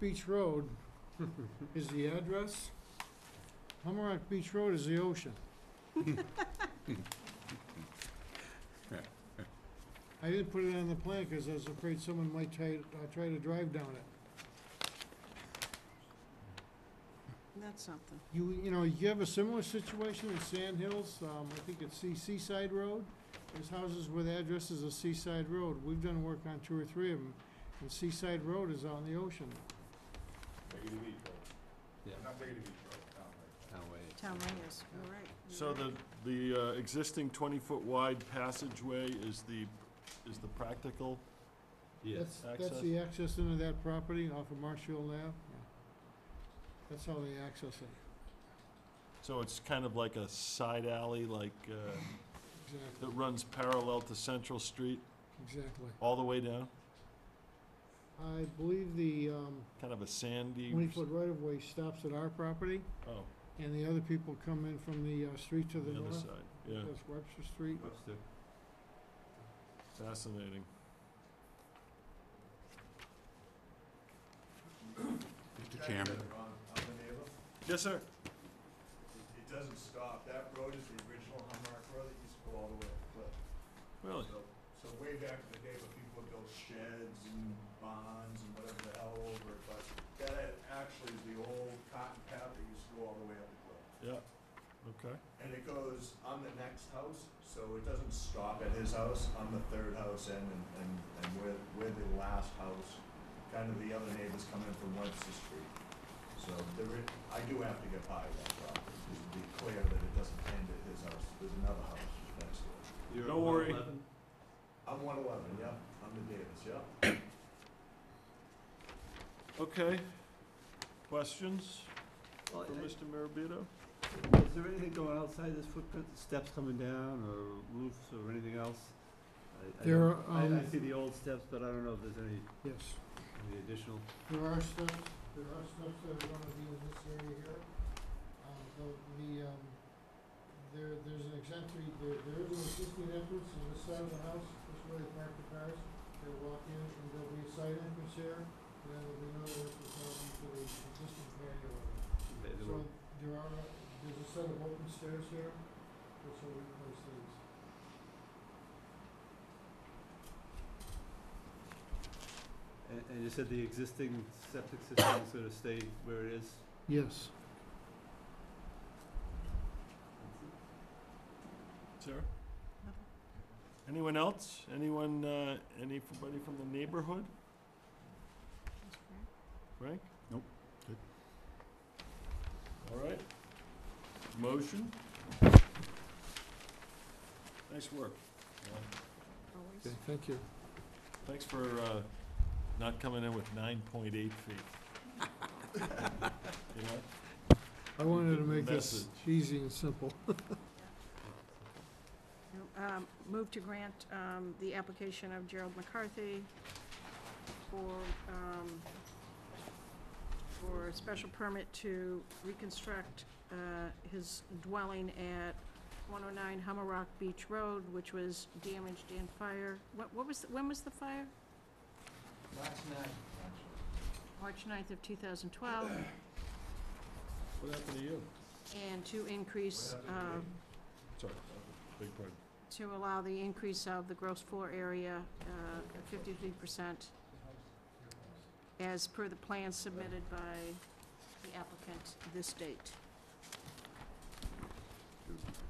Beach Road is the address. Hummerock Beach Road is the ocean. I didn't put it on the plan because I was afraid someone might try, uh, try to drive down it. That's something. You, you know, you have a similar situation in Sand Hills, um, I think it's Sea- Seaside Road. There's houses with addresses of Seaside Road. We've done work on two or three of them, and Seaside Road is on the ocean. Take it to Beach Road. Yeah. Not take it to Beach Road, town road. Town Reyes, you're right. you're So right. the, the uh, existing twenty-foot wide passageway is the, is the practical? Yes, That's, that's Access. the access into that property off of Marshall Ave. Yeah. That's how they access it, So it's kind of like a side alley, like, uh, exactly, that runs parallel to Central Street exactly. all the way down? I believe the, um, Kind of a sandy? twenty-foot right-of-way stops at our property, Oh, and the other people come in from the, uh, street to the the other north. side, yeah, That's Webster Street. fascinating. Mr. Can I Chairman. get it wrong? I'm the neighbor. Yes, sir? It- It doesn't stop. That road is the original Humrock Road that used to go all the way up the cliff. Really? So, so way back in the day, when people built sheds and barns and whatever the hell over it, but that actually is the old cotton path that used to go all the way up the cliff. Yeah, okay. And it goes, I'm the next house, so it doesn't stop at his house, I'm the third house in, and, and, and we're, we're the last house. Kind of the other neighbors come in from Webster Street. So there is, I do have to get by that property, just to be clear that it doesn't end at his house, there's another house next door. Don't worry. I'm one eleven, yep, I'm the Davis, yep. Okay. Questions Well, for Mr. Maribito? Is there anything going outside this footprint, steps coming down, or roofs, or anything else? I- I There don't- are, I, I um, see the old steps, but I don't know if there's any, Yes, any additional. there are steps, there are steps that are gonna be in this area here. Um, the, the, um, there, there's an exemplary, there, there is an existing entrance on this side of the house, this way they park the cars. They walk in, and there'll be a side entrance here, and then there'll be another entrance out into the existing patio area. they- they So won't- there are, there's a set of open stairs here, which will replace these. And, and you said the existing septic system is gonna stay where it is? Yes. Sir? Anyone else? Anyone, uh, anybody from the neighborhood? That's great. Frank? Nope. Good. All right. Motion? Nice work. Uh, Always. thank you. Thanks for uh, not coming in with nine point eight feet. You know? I wanted to make this Message. easy and simple. Um, Move to grant um, the application of Gerald McCarthy for, um, for a special permit to reconstruct uh, his dwelling at 109 Hummerock Beach Road, which was damaged in fire. What what was, when was the fire? Last night, actually. March 9th of 2012, What happened to you? and to increase What happened to um, me? Sorry, big pardon. to allow the increase of the gross floor area uh, at 53% as per the plan submitted by the applicant this date.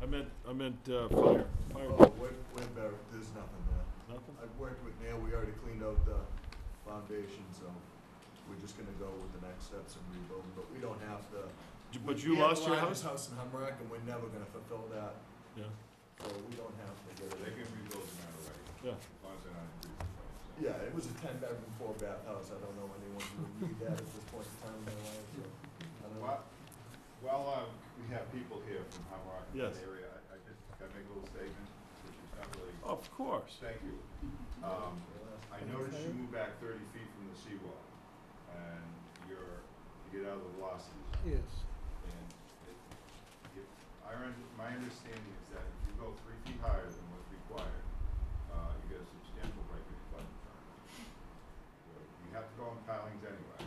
I meant, I meant uh, fire, fire, Oh, we're, we're better, there's nothing there. nothing? I've worked with Neil, we already cleaned out the foundation, so we're just gonna go with the next steps and rebuild, but we don't have the. J- But we you have lost the your largest house? House in Humrock, and we're never gonna fulfill that, Yeah, so we don't have to get They it. can rebuild no matter what, as yeah. long as they're not in breach of plans. Yeah, it was a ten bedroom, four bath house, I don't know anyone who would need that at this point in time in their life, so. I don't know. Well, while, uh, we have people here from Hamrock and Yes. that area, I, I just gotta make a little statement, which is not really, Of course. thank you. Um, I noticed you Okay. moved back thirty feet from the seawall, and you're, you get out of the velocity zone. Yes. And it, if, I, un- my understanding is that if you go three feet higher than what's required, uh, you get a substantial break in flood. insurance. So You have to go on pilings anyway,